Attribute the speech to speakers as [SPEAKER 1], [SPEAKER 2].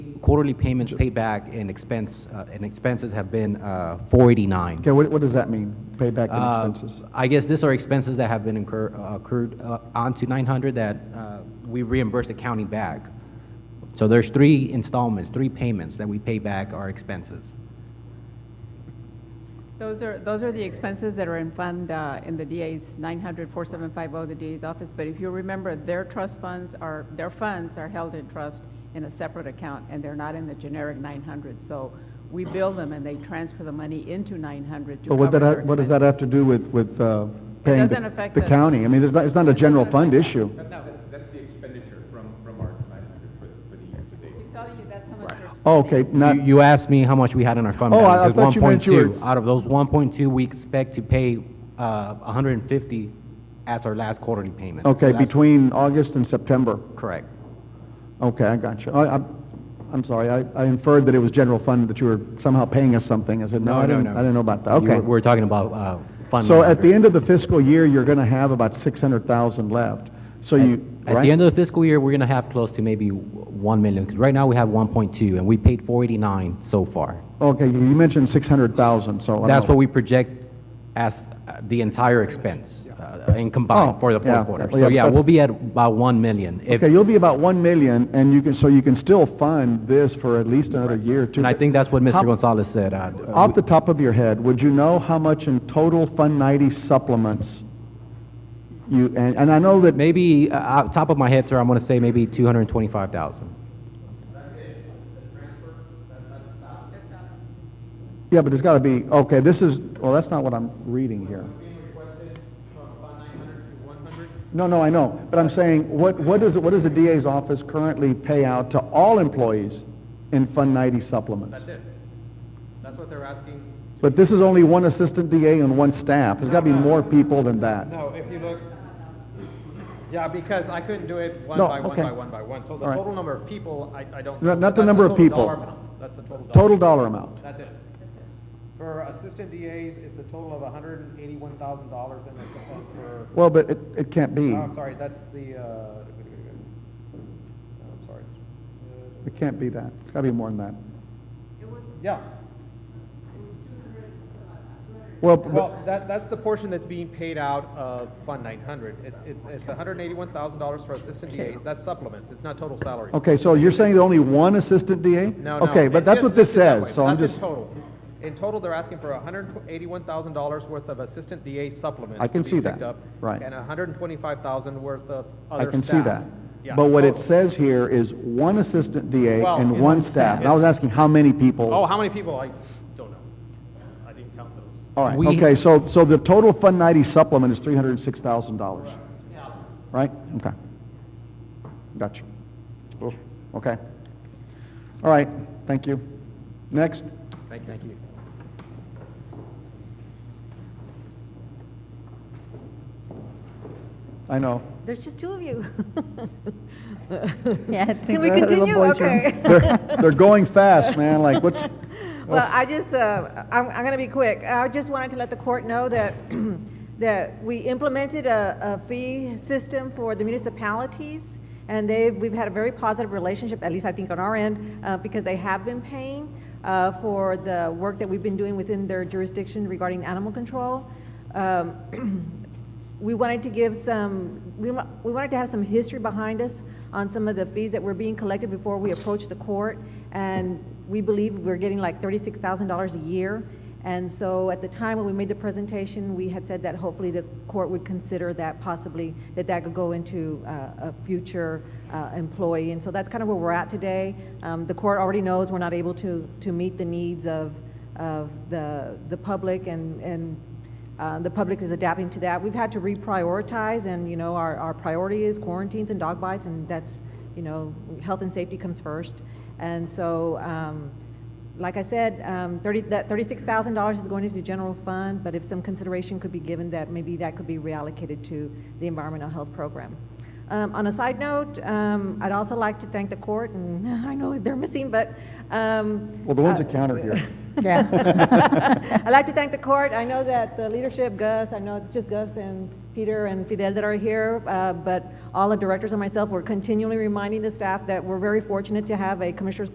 [SPEAKER 1] quarterly payments paid back and expense, uh, and expenses have been uh, 489.
[SPEAKER 2] Okay, what, what does that mean? Payback
[SPEAKER 1] Uh,
[SPEAKER 2] and expenses?
[SPEAKER 1] I guess these are expenses that have been incur- uh, accrued uh, onto 900 that uh, we reimburse the county back. So there's three installments, three payments that we pay back our expenses.
[SPEAKER 3] Those are, those are the expenses that are in fund, uh, in the DA's 900-4750, oh, the DA's office. But if you remember, their trust funds are, their funds are held in trust in a separate account, and they're not in the generic 900. So we bill them, and they transfer the money into 900 to
[SPEAKER 2] But what
[SPEAKER 3] cover
[SPEAKER 2] that,
[SPEAKER 3] their
[SPEAKER 2] ha- what does that have to
[SPEAKER 3] expenses.
[SPEAKER 2] do with, with uh, paying
[SPEAKER 3] doesn't
[SPEAKER 2] the-
[SPEAKER 3] affect
[SPEAKER 2] the
[SPEAKER 3] the-
[SPEAKER 2] county? I mean, there's not, it's not a general fund issue.
[SPEAKER 3] No.
[SPEAKER 4] That's the expenditure from, from our 900 for, the- for the year to date.
[SPEAKER 3] He's telling you that's how much they're spending.
[SPEAKER 2] Oh, Okay, not,
[SPEAKER 1] You- You asked me how much we had in our fund
[SPEAKER 2] Oh, I-
[SPEAKER 1] balance.
[SPEAKER 2] I
[SPEAKER 1] It's
[SPEAKER 2] thought you meant you were-
[SPEAKER 1] 1.2. Out of those 1.2, we expect to pay uh, 150 as our last quarterly payment.
[SPEAKER 2] okay,
[SPEAKER 1] So that's-
[SPEAKER 2] between August and September.
[SPEAKER 1] Correct.
[SPEAKER 2] Okay, I got you. I, I, I'm sorry, I I inferred that it was general fund, that you were somehow paying us something. I said, no, I didn't, I didn't know about that.
[SPEAKER 1] You
[SPEAKER 2] Okay.
[SPEAKER 1] were- We're talking about uh, fund.
[SPEAKER 2] So at the
[SPEAKER 1] manager.
[SPEAKER 2] end of the fiscal year, you're going to have about 600,000 left. So you,
[SPEAKER 1] At the
[SPEAKER 2] right?
[SPEAKER 1] end of the fiscal year, we're going to have close to maybe 1 million, because right now we have 1.2, and we paid 489 so far.
[SPEAKER 2] Okay, you you mentioned 600,000, so. I don't
[SPEAKER 1] That's
[SPEAKER 2] know.
[SPEAKER 1] what we project as uh, the entire expense uh, in combined
[SPEAKER 2] Oh,
[SPEAKER 1] for the
[SPEAKER 2] yeah,
[SPEAKER 1] fourth quarter.
[SPEAKER 2] well, yeah,
[SPEAKER 1] So yeah,
[SPEAKER 2] that's-
[SPEAKER 1] we'll be at about 1 million. if-
[SPEAKER 2] Okay, you'll be about 1 million, and you can, so you can still fund this for at least another year or two.
[SPEAKER 1] And I think that's what Mr.
[SPEAKER 2] How-
[SPEAKER 1] Gonzalez said. uh, uh,
[SPEAKER 2] Off the top of your head, would you know how much in total Fund 90 supplements you, and, and I know that,
[SPEAKER 1] Maybe, uh, uh, top of my head, sir, I'm going to say maybe 225,000.
[SPEAKER 2] yeah, but there's got to be, okay, this is, well, that's not what I'm reading here. No, no, I know, but I'm saying, what, what does, what does the DA's office currently pay out to all employees in Fund 90 supplements?
[SPEAKER 4] That's it. That's what they're asking.
[SPEAKER 2] But this is only one assistant DA and one staff. There's got to be more people than that.
[SPEAKER 4] No, if you look, yeah, because I couldn't do it one
[SPEAKER 2] No,
[SPEAKER 4] by one
[SPEAKER 2] okay.
[SPEAKER 4] by one by one. So the
[SPEAKER 2] All right.
[SPEAKER 4] total number of people, I, I don't.
[SPEAKER 2] No,
[SPEAKER 4] know,
[SPEAKER 2] not the
[SPEAKER 4] but that's
[SPEAKER 2] number of
[SPEAKER 4] total dollar
[SPEAKER 2] people.
[SPEAKER 4] amount. That's the total. dollar.
[SPEAKER 2] Total dollar amount.
[SPEAKER 4] That's it. For assistant DAs, it's a total of hundred and eighty-one thousand dollars and it's uh, for,
[SPEAKER 2] Well, hmm. but it, it can't be.
[SPEAKER 4] oh, I'm sorry, that's the, uh, oh, I'm sorry. Uh,
[SPEAKER 2] It can't be that. It's got to be more than that.
[SPEAKER 4] Yeah,
[SPEAKER 2] Well, but,
[SPEAKER 4] Well, that, that's the portion that's being paid out of Fund 900. It's, it's, it's $181,000 for assistant DAs. That's supplements. It's not total salaries.
[SPEAKER 2] okay, so you're saying that only one assistant DA?
[SPEAKER 4] No, no.
[SPEAKER 2] Okay, but
[SPEAKER 4] It's
[SPEAKER 2] that's
[SPEAKER 4] just
[SPEAKER 2] what this
[SPEAKER 4] listed that way.
[SPEAKER 2] says, so I'm
[SPEAKER 4] That's
[SPEAKER 2] just,
[SPEAKER 4] in total. In total, they're asking for $181,000 worth of assistant DA supplements.
[SPEAKER 2] I can
[SPEAKER 4] to be
[SPEAKER 2] see
[SPEAKER 4] picked
[SPEAKER 2] that.
[SPEAKER 4] up,
[SPEAKER 2] Right.
[SPEAKER 4] And $125,000 worth of other
[SPEAKER 2] I
[SPEAKER 4] staff.
[SPEAKER 2] can see that.
[SPEAKER 4] Yeah, Oh.
[SPEAKER 2] But what it
[SPEAKER 4] total.
[SPEAKER 2] says here is one assistant DA
[SPEAKER 4] Well,
[SPEAKER 2] and
[SPEAKER 4] it's-
[SPEAKER 2] one staff. And I was
[SPEAKER 4] it's-
[SPEAKER 2] asking how many people?
[SPEAKER 4] Oh, how many people? I don't know. I didn't count those.
[SPEAKER 2] All right,
[SPEAKER 1] We-
[SPEAKER 2] okay, so, so the total Fund 90 supplement is $306,000. Right? Okay. Gotcha.
[SPEAKER 4] Oh.
[SPEAKER 2] Okay. All right, thank you. Next.
[SPEAKER 4] Thank you. Thank you.
[SPEAKER 2] I know.
[SPEAKER 5] There's just two of you.
[SPEAKER 6] Yeah, I think
[SPEAKER 5] Can we
[SPEAKER 6] we're a little
[SPEAKER 5] continue?
[SPEAKER 6] boys' room.
[SPEAKER 5] Okay.
[SPEAKER 2] They're, they're going fast, man, like, what's,
[SPEAKER 5] Well, I just, uh, I'm, I'm going to be quick. I just wanted to let the court know that, that we implemented a, a fee system for the municipalities, and they've, we've had a very positive relationship, at least I think on our end, uh, because they have been paying uh, for the work that we've been doing within their jurisdiction regarding animal control. Um, we wanted to give some, we wa- we wanted to have some history behind us on some of the fees that were being collected before we approached the court. And we believe we're getting like $36,000 a year. And so at the time when we made the presentation, we had said that hopefully the court would consider that possibly, that that could go into uh, a future uh, employee. And so that's kind of where we're at today. Um, The court already knows we're not able to, to meet the needs of, of the, the public and, and uh, The public is adapting to that. We've had to reprioritize, and, you know, our, our priority is quarantines and dog bites, and that's, you know, health and safety comes first. And so, um, like I said, um, 30, that $36,000 is going into the general fund, but if some consideration could be given that maybe that could be reallocated to the environmental health program. Um, on a side note, um, I'd also like to thank the court, and I know they're missing, but, um,
[SPEAKER 2] well, the ones that count are here.
[SPEAKER 6] Yeah,
[SPEAKER 5] I'd like to thank the court. I know that the leadership, Gus, I know it's just Gus and Peter and Fidel that are here, uh, but all the directors and myself, we're continually reminding the staff that we're very fortunate to have a Commissioners